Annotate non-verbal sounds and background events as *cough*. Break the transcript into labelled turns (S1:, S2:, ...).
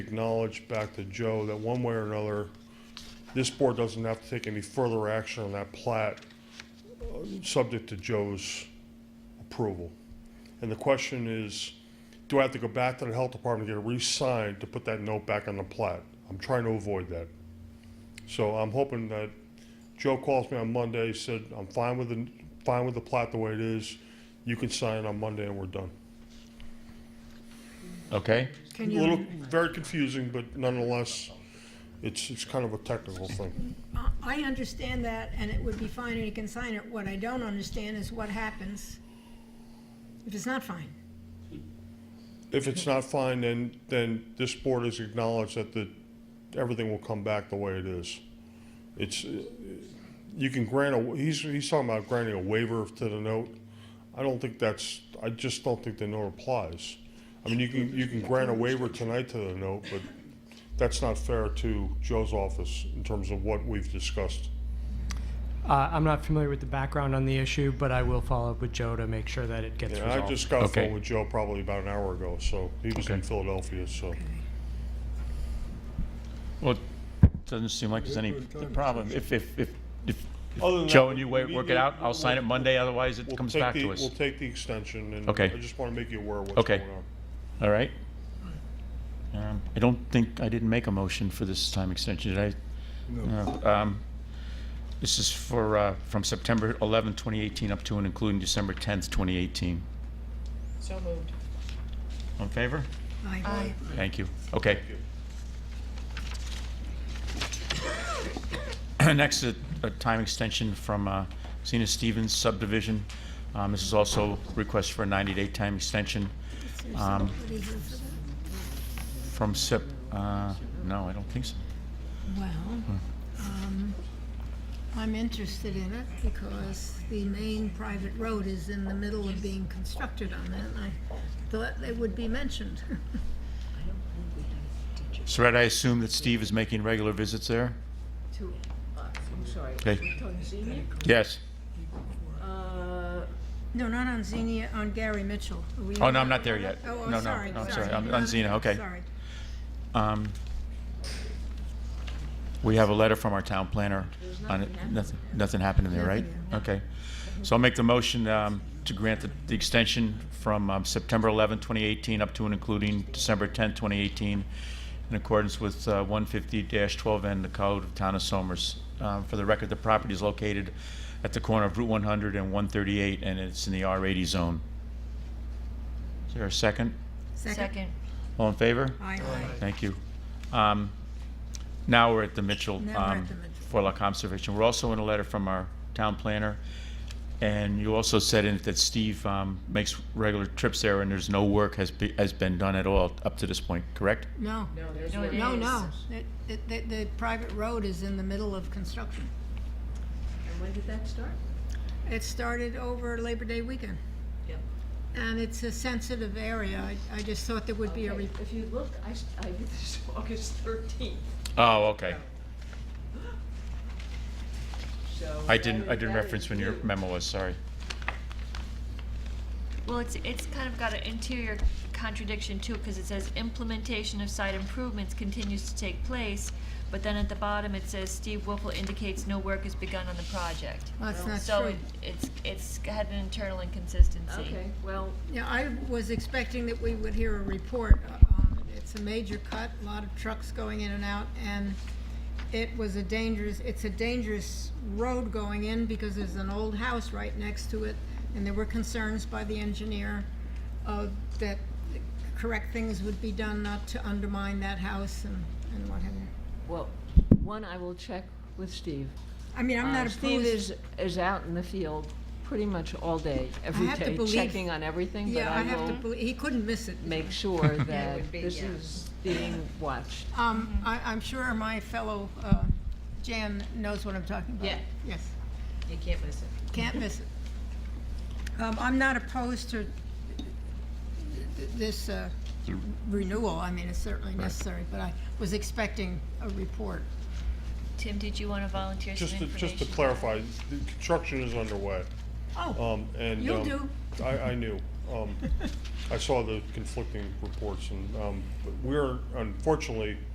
S1: acknowledge back to Joe that one way or another, this board doesn't have to take any further action on that plat, uh, subject to Joe's approval. And the question is, do I have to go back to the health department to get it re-signed to put that note back on the plat? I'm trying to avoid that. So I'm hoping that Joe calls me on Monday, said, I'm fine with the, fine with the plat the way it is. You can sign on Monday and we're done.
S2: Okay,
S1: A
S3: Can
S1: little,
S3: you,
S1: very confusing, but nonetheless, it's, it's kind of a technical thing.
S3: I- I understand that, and it would be fine, and you can sign it. What I don't understand is what happens if it's not fine.
S1: If it's not fine, then, then this board has acknowledged that the, everything will come back the way it is. It's, uh, you can grant a, he's, he's talking about granting a waiver to the note. I don't think that's, I just don't think the note applies. I mean, you can, you can grant a waiver tonight to the note, but that's not fair to Joe's office in terms of what we've discussed.
S4: Uh, I'm not familiar with the background on the issue, but I will follow up with Joe to make sure that it gets
S1: Yeah, I
S4: resolved.
S1: just got a phone
S2: Okay.
S1: with Joe probably about an hour ago, so he was in
S2: Okay.
S1: Philadelphia, so.
S2: well, it doesn't seem like there's any the problem. If, if, if, if if
S1: Other than
S2: Joe
S1: that,
S2: and you
S1: we
S2: wa- work
S1: need-
S2: it out, I'll sign it Monday, otherwise it
S1: we'll
S2: comes
S1: take
S2: back
S1: the-
S2: to us.
S1: We'll take the extension, and I
S2: Okay.
S1: just want to make you aware of what's
S2: Okay.
S1: going on.
S2: All right? Um, I don't think, I didn't make a motion for this time extension, did I? No. Um, This is for, uh, from September 11, 2018 up to and including December 10th, 2018.
S5: So moved.
S2: All in favor?
S3: Aye.
S2: Thank you. Okay.
S1: Thank you.
S2: *coughs* Next, a a time extension from uh, Zena Stevens subdivision. Um, This is also request for a 90-day time extension um,
S3: What is it?
S2: from Sep, uh, no, I don't think so.
S3: Well, um, I'm interested in it because the main private road is in the middle of being constructed on that, and I thought it would be mentioned. *laughs*
S2: Saret, I assume that Steve is making regular visits there?
S5: To, uh, I'm sorry.
S2: Okay.
S5: we're talking senior?
S2: Yes.
S5: Uh,
S3: No, not on Xenia, on Gary Mitchell. Are we-
S2: Oh, no, I'm not there yet.
S3: Oh,
S2: No,
S3: I'm
S2: no,
S3: sorry, sorry.
S2: no, I'm sorry. I'm on Xenia, okay.
S3: Sorry.
S2: Um, We have a letter from our town planner on it. Nothing, nothing happened in there, right?
S3: Nothing,
S2: Okay. So I'll make the motion um, to grant the, the extension from um, September 11, 2018 up to and including December 10, 2018 in accordance with uh, 150-12N, the Code of Town of Somers. Um, For the record, the property is located at the corner of Route 100 and 138 and it's in the R80 zone. Is there a second?
S3: Second.
S2: All in favor?
S3: Aye, aye.
S2: Thank you. Um, Now we're at the Mitchell
S3: Now we're at
S2: um,
S3: the Mitchell.
S2: Forelock Conservation. We're also in a letter from our town planner, and you also said in it that Steve um, makes regular trips there, and there's no work has be- has been done at all up to this point, correct?
S3: No,
S5: no, there's
S6: No,
S5: one.
S6: it
S3: no,
S6: is.
S3: no. It- it- The, the private road is in the middle of construction.
S5: And when did that start?
S3: It started over Labor Day weekend.
S5: Yep.
S3: And it's a sensitive area. I, I just thought there would be a,
S5: Okay,
S3: re-
S5: If you look, I, s- I, this *laughs* is August thirteenth,
S2: Oh, okay.
S5: so.
S2: I didn't,
S5: that
S2: I
S5: is-
S2: didn't
S5: that
S2: reference
S5: is
S2: when your
S5: new.
S2: memo was, sorry.
S6: Well, it's, it's kind of got an interior contradiction too, because it says implementation of site improvements continues to take place, but then at the bottom it says Steve Wolfle indicates no work has begun on the project.
S3: well, that's not
S6: So
S3: true.
S6: it- it's, it's had an internal inconsistency.
S5: Okay, well,
S3: Yeah, I was expecting that we would hear a report. Um, It's a major cut, a lot of trucks going in and out, and it was a dangerous, it's a dangerous road going in because there's an old house right next to it, and there were concerns by the engineer uh, that the correct things would be done not to undermine that house and, and what have you.
S5: well, one, I will check with Steve.
S3: I mean, I'm
S5: Uh,
S3: not
S5: Steve
S3: opposed,
S5: is, is out in the field pretty much all day, every
S3: have to
S5: day,
S3: believe-
S5: checking on everything, but
S3: yeah, I
S5: I
S3: have to,
S5: will
S3: believe- he couldn't miss it.
S5: make
S6: *laughs*
S5: sure
S6: it
S5: that
S6: would be,
S5: this
S6: yeah.
S5: is being watched.
S3: Um, I, I'm sure my fellow, uh, Jan knows what I'm talking about.
S5: Yeah.
S3: Yes.
S5: You can't miss it.
S3: Can't miss it. Um, I'm not opposed to th- this uh, renewal, I mean, it's certainly necessary, but I was expecting a report.
S6: Tim, did you want to volunteer some
S1: Just to,
S6: information?
S1: just to clarify, the construction is underway.
S3: Oh,
S1: Um, and.
S3: You'll
S1: um, I, I knew. Um, I saw the conflicting reports and, um, but we're unfortunately,